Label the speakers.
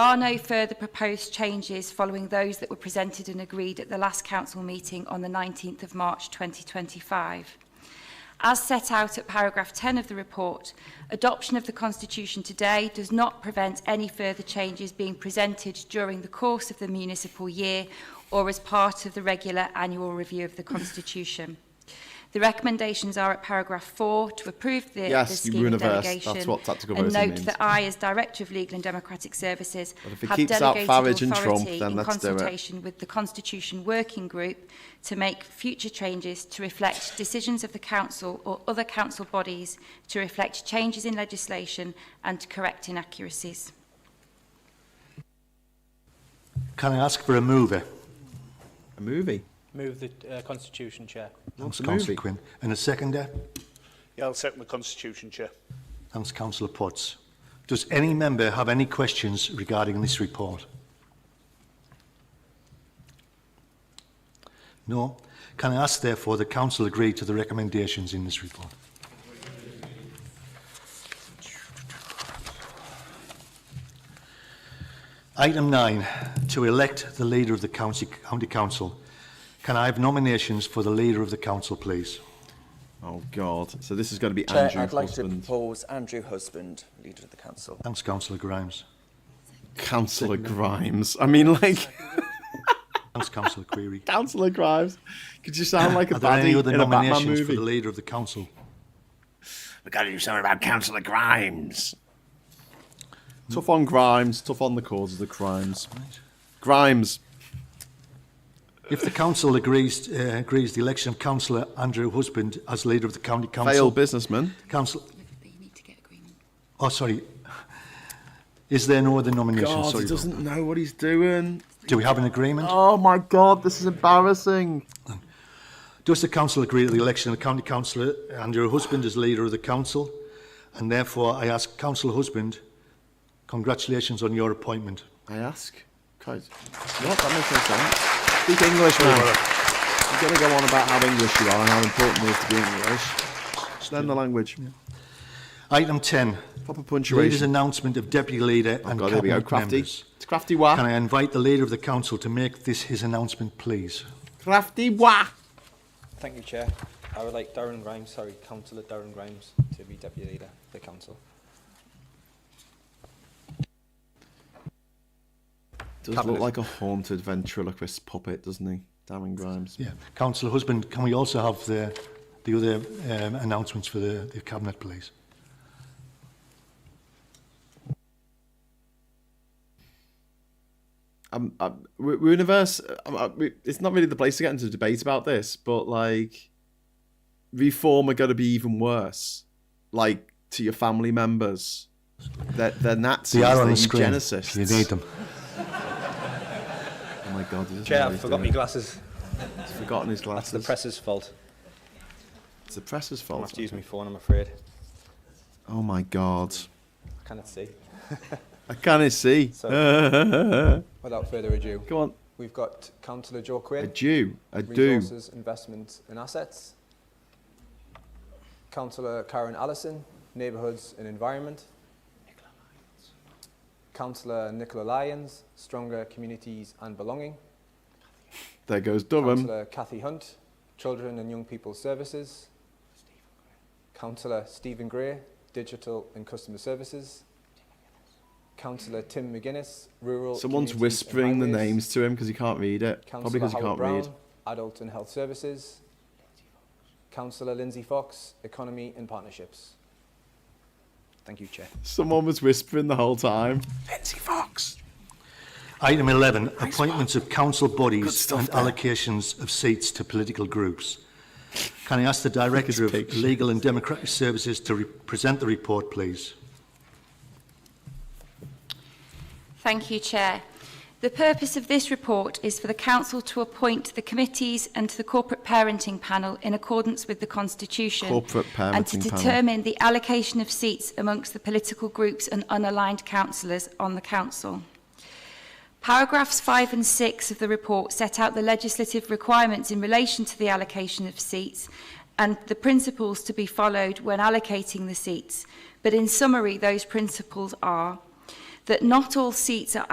Speaker 1: There are no further proposed changes following those that were presented and agreed at the last council meeting on the 19th of March 2025. As set out at paragraph 10 of the report, adoption of the Constitution today does not prevent any further changes being presented during the course of the municipal year or as part of the regular annual review of the Constitution. The recommendations are at paragraph 4 to approve the,
Speaker 2: Yes,
Speaker 1: the
Speaker 2: you
Speaker 1: scheme
Speaker 2: were in a
Speaker 1: of
Speaker 2: verse.
Speaker 1: delegation
Speaker 2: That's what tactical
Speaker 1: and
Speaker 2: voting
Speaker 1: note
Speaker 2: means.
Speaker 1: that I, as Director of Legal and Democratic Services,
Speaker 2: But if it
Speaker 1: have
Speaker 2: keeps out
Speaker 1: delegated
Speaker 2: Farage
Speaker 1: authority
Speaker 2: and Trump, then
Speaker 1: in
Speaker 2: let's do it.
Speaker 1: consultation with the Constitution Working Group to make future changes to reflect decisions of the Council or other Council bodies to reflect changes in legislation and to correct inaccuracies.
Speaker 3: Can I ask for a mover?
Speaker 2: A movie.
Speaker 4: Move the uh, Constitution, Chair.
Speaker 3: Thanks,
Speaker 2: a
Speaker 3: councillor
Speaker 2: movie.
Speaker 3: Quinn. And a seconder?
Speaker 5: Yeah, I'll second the Constitution, Chair.
Speaker 3: Thanks, councillor Potts. Does any member have any questions regarding this report? No? Can I ask, therefore, the council agree to the recommendations in this report? Item 9, to elect the leader of the county, county council. Can I have nominations for the leader of the council, please?
Speaker 2: Oh God! So this is going to be
Speaker 6: Chair,
Speaker 2: Andrew
Speaker 6: I'd like
Speaker 2: husband,
Speaker 6: to propose Andrew Husband, Leader of the Council.
Speaker 3: Thanks, councillor Grimes.
Speaker 2: Councillor Grimes. I mean, like
Speaker 3: Thanks, councillor Query.
Speaker 2: Councillor Grimes. Could you sound like a
Speaker 3: Are there any
Speaker 2: baddie
Speaker 3: other
Speaker 2: in a Batman
Speaker 3: nominations for
Speaker 2: movie?
Speaker 3: the leader of the council?
Speaker 7: We've got to do something about Councillor Grimes.
Speaker 2: Tough on Grimes. Tough on the cause of the crimes. Grimes.
Speaker 3: If the council agrees, uh, agrees the election of councillor Andrew Husband as leader of the county
Speaker 2: Failed
Speaker 3: council,
Speaker 2: businessman.
Speaker 3: council, oh sorry, is there no other nomination? sorry, Bill.
Speaker 2: know what he's doing.
Speaker 3: do we have an agreement?
Speaker 2: Oh my God! This is embarrassing.
Speaker 3: Does the council agree to the election of county councillor Andrew Husband as leader of the council? And therefore, I ask councillor Husband, congratulations on your appointment.
Speaker 2: I ask. Guys, what? That makes no sense. Speak English, man. You're going to go on about how English you are and how important it is to be English. Just learn the language.
Speaker 3: Item 10,
Speaker 2: Proper
Speaker 3: leader's
Speaker 2: punctuation.
Speaker 3: announcement of deputy leader
Speaker 2: Oh
Speaker 3: and
Speaker 2: God, here
Speaker 3: cabinet
Speaker 2: we go. Crafty.
Speaker 3: members.
Speaker 2: It's crafty wah.
Speaker 3: Can I invite the leader of the council to make this his announcement, please?
Speaker 2: Crafty wah.
Speaker 8: Thank you, Chair. I would like Darren Grimes, sorry, Councillor Darren Grimes, to be Deputy Leader of the Council.
Speaker 2: Does look like a haunted ventriloquist puppet, doesn't he? Darren Grimes.
Speaker 3: Yeah. Councillor Husband, can we also have the, the other um, announcements for the, the cabinet, please?
Speaker 2: Um, um, we- we're in a verse. Um, uh, we- it's not really the place to get into debate about this, but like, reform are going to be even worse. Like to your family members, they're, they're Nazis.
Speaker 3: They are
Speaker 2: they're
Speaker 3: on the screen.
Speaker 2: eugenicists.
Speaker 3: if You need them.
Speaker 2: Oh my god! he doesn't know
Speaker 8: Chair,
Speaker 2: what
Speaker 8: I
Speaker 2: he's
Speaker 8: forgot my
Speaker 2: doing.
Speaker 8: glasses.
Speaker 2: He's forgotten his glasses.
Speaker 8: It's the press's fault.
Speaker 2: It's the presser's
Speaker 8: I
Speaker 2: fault.
Speaker 8: have to use my phone, I'm afraid.
Speaker 2: Oh my god!
Speaker 8: I cannot see.
Speaker 2: I can't see.
Speaker 8: So-
Speaker 2: Go
Speaker 8: Without further ado,
Speaker 2: on.
Speaker 8: we've got Councillor Joe
Speaker 2: A
Speaker 8: Quinn,
Speaker 2: Jew. A do.
Speaker 8: Resources, Investment and Assets. Councillor Karen Allison, Neighbourhoods and Environment. Councillor Nicola Lyons, Stronger Communities and Belonging.
Speaker 2: There goes Durham.
Speaker 8: Councillor Cathy Hunt, Children and Young People Services. Councillor Stephen Gray, Digital and Customer Services. Councillor Tim McGuinness, Rural.
Speaker 2: Someone's
Speaker 8: Communities and
Speaker 2: whispering the
Speaker 8: Highways.
Speaker 2: names to him because he can't read it. Probably
Speaker 8: Councillor
Speaker 2: because he
Speaker 8: Howard
Speaker 2: can't
Speaker 8: Brown,
Speaker 2: read.
Speaker 8: Adult and Health Services. Councillor Lindsay Fox, Economy and Partnerships. Thank you, Chair.
Speaker 2: Someone was whispering the whole time.
Speaker 7: Lindsay Fox.
Speaker 3: Item 11, appointments of council bodies
Speaker 7: stuff
Speaker 3: and
Speaker 7: there.
Speaker 3: allocations of seats to political groups. Can I ask the Director of
Speaker 2: pig.
Speaker 3: Legal and Democratic Services to re- present the report, please?
Speaker 1: Thank you, Chair. The purpose of this report is for the Council to appoint the committees and to the Corporate Parenting Panel in accordance with the Constitution
Speaker 2: Corporate
Speaker 1: and to
Speaker 2: Parenting Panel.
Speaker 1: determine the allocation of seats amongst the political groups and unaligned councillors on the Council. Paragraphs 5 and 6 of the report set out the legislative requirements in relation to the allocation of seats and the principles to be followed when allocating the seats. But in summary, those principles are that not all seats are